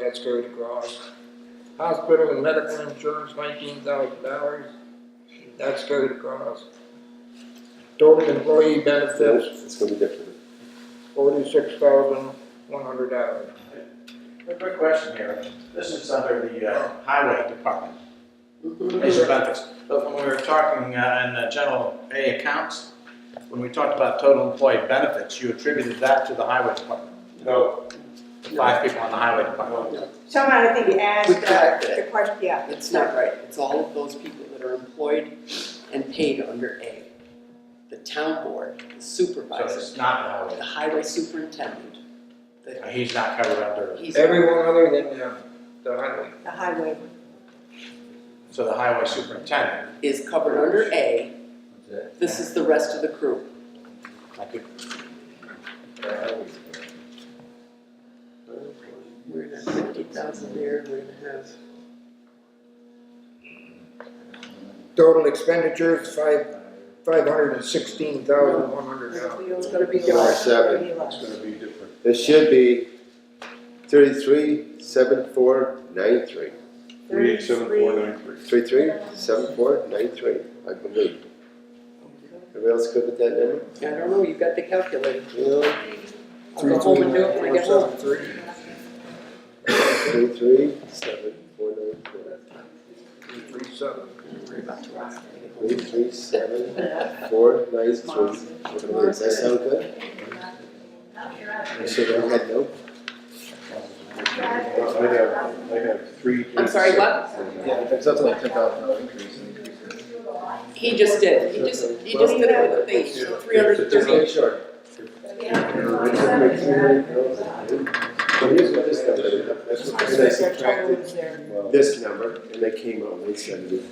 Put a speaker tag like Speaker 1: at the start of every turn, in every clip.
Speaker 1: that's carried across. Hospital and medical insurance, nineteen thousand dollars, that's carried across. Total employee benefits,
Speaker 2: It's gonna be different.
Speaker 1: forty-six thousand, one hundred dollars.
Speaker 3: A quick question here. This is under the uh, highway department. Major benefits. But when we were talking uh, in the general A accounts, when we talked about total employee benefits, you attributed that to the highway department.
Speaker 2: No.
Speaker 3: Five people on the highway department.
Speaker 4: Someone I think asked
Speaker 5: We corrected
Speaker 4: uh, the question, yeah,
Speaker 5: It's not right, it's all of those people that are employed and paid under A. The town board, the
Speaker 3: So
Speaker 5: supervisor,
Speaker 3: it's not the
Speaker 5: the highway superintendent,
Speaker 3: highway. He's not covered under,
Speaker 5: he's.
Speaker 1: Everyone other than the, the highway.
Speaker 4: the highway.
Speaker 3: so the highway superintendent.
Speaker 5: Is covered under A, this is the rest of the crew.
Speaker 3: I could-
Speaker 5: We're gonna have fifty thousand there, we're gonna have.
Speaker 1: Total expenditures, five, five hundred and sixteen thousand, one hundred dollars.
Speaker 4: It's gonna be
Speaker 2: July
Speaker 4: dark,
Speaker 2: seven.
Speaker 4: really low.
Speaker 2: It should be thirty-three, seven, four, nine, three. Three-three, seven-four, nine-three, I believe. Everybody else good with that number?
Speaker 5: I don't know, you've got the calculator.
Speaker 2: Yeah,
Speaker 5: I'll go home and do it when I get home.
Speaker 2: three-three, seven-four, nine-four.
Speaker 5: Don't worry about the rock.
Speaker 2: Three-three, seven-four, nine-three. Does that sound good? You sure don't have no?
Speaker 6: Well, I'd have, I'd have three.
Speaker 5: I'm sorry, what?
Speaker 6: Yeah, if it's up to like ten thousand dollar increase, then increase it.
Speaker 5: He just did, he just, he just did it with a thing, three hundred and
Speaker 2: Just
Speaker 5: thirty.
Speaker 2: make sure. So here's what this number is. That's what they subtracted This number, and they came out with seventy.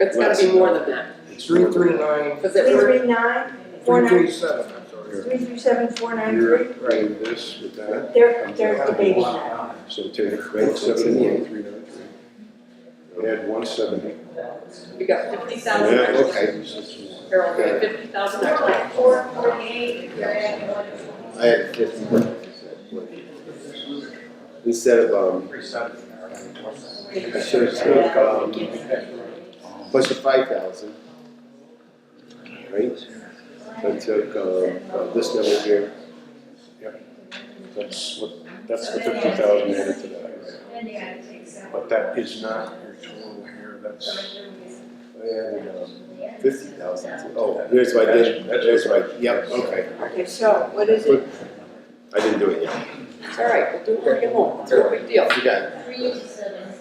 Speaker 5: It's gotta be more than that,
Speaker 1: Three, three, nine,
Speaker 5: because it
Speaker 4: Three
Speaker 5: was,
Speaker 4: three nine, four
Speaker 1: three,
Speaker 4: nine,
Speaker 1: three, seven, I'm sorry.
Speaker 4: three three seven, four nine
Speaker 6: You're
Speaker 4: three,
Speaker 6: at right, this with that,
Speaker 4: they're, they're debating that.
Speaker 6: so take one seventy, one three nine three. Add one seventy.
Speaker 5: we got fifty
Speaker 6: Yeah,
Speaker 5: thousand extra.
Speaker 6: okay.
Speaker 5: Harold, we got fifty thousand extra.
Speaker 7: Four forty-eight, you're at
Speaker 2: I had fifty. Instead of, um,
Speaker 3: Three seven.
Speaker 2: I should have took, um, plus the five thousand. Right? I took, um, uh, this number here,
Speaker 6: That's what, that's the fifty thousand added to that, right?
Speaker 7: Then you gotta take some.
Speaker 6: But that is not your total here, that's, I
Speaker 2: uh,
Speaker 6: added, um,
Speaker 2: fifty thousand. Oh, here's what I did, here's what, I- yep, okay.
Speaker 4: Okay, so what is it?
Speaker 2: I didn't do it yet.
Speaker 5: It's all right, we'll do it when we get home, it's no big deal.
Speaker 2: You got it.
Speaker 7: Three eighty-seven,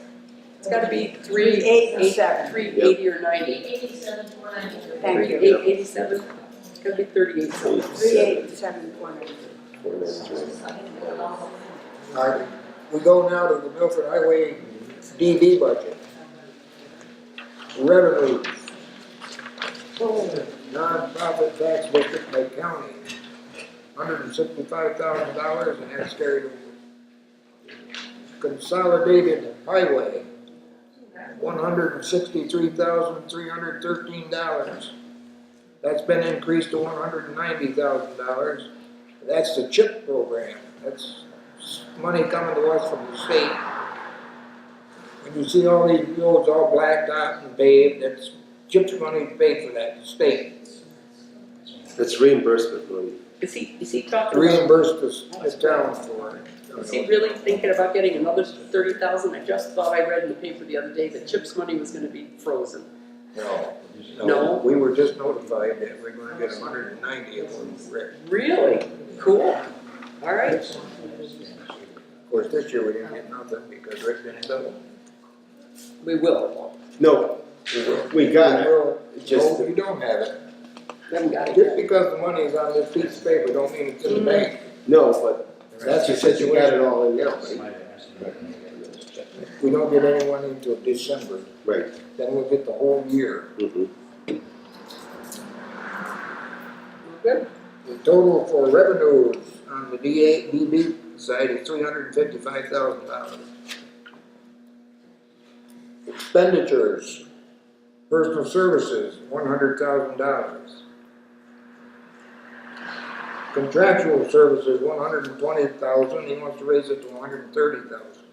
Speaker 5: It's gotta be three,
Speaker 4: Eight and
Speaker 5: eight,
Speaker 4: seven,
Speaker 5: three eighty or ninety.
Speaker 7: eight eighty-seven, four ninety-three.
Speaker 4: thank
Speaker 5: Three,
Speaker 4: you.
Speaker 5: eight, eighty-seven, it's gonna be thirty-eight something.
Speaker 4: Three eight seven, four nine three.
Speaker 2: Four ninety-three.
Speaker 1: All right, we go now to the Milford Highway DD budget. Revenue. Nonprofit tax district by county, hundred and sixty-five thousand dollars, and that's carried over. Consolidated highway, one hundred and sixty-three thousand, three hundred thirteen dollars. That's been increased to one hundred and ninety thousand dollars. That's the CHIP program, that's money coming to us from the state. When you see all these roads all blacked out and paved, that's CHIP's money paid for that, the state
Speaker 2: That's reimbursement money.
Speaker 5: Is he, is he talking, about-
Speaker 1: reimbursed the, the town for
Speaker 5: is he
Speaker 1: it.
Speaker 5: really thinking about getting another thirty thousand? I just thought I read in the paper the other day that CHIPS money was gonna be frozen.
Speaker 1: No,
Speaker 5: No.
Speaker 1: no, we were just notified that we're gonna get hundred and ninety of them, Rick.
Speaker 5: Really? Cool. All right.
Speaker 1: Of course, this year we didn't get nothing because Rick didn't do it.
Speaker 5: We will.
Speaker 2: No, we got it,
Speaker 1: No,
Speaker 2: It's just,
Speaker 1: you don't have it.
Speaker 5: We haven't got it
Speaker 1: Just
Speaker 5: yet.
Speaker 1: because the money is on this piece of paper, don't mean it's in the bank.
Speaker 2: no, but
Speaker 1: That's the
Speaker 2: since you got
Speaker 1: situation.
Speaker 2: it all in now, right?
Speaker 1: We don't get any money until December,
Speaker 2: Right.
Speaker 1: then we'll get the whole year.
Speaker 2: Mm-hmm.
Speaker 5: Good.
Speaker 1: The total for revenues on the D eight, DB side is three hundred and fifty-five thousand dollars. Expenditures, personal services, one hundred thousand dollars. Contractual services, one hundred and twenty thousand, he wants to raise it to one hundred and thirty thousand.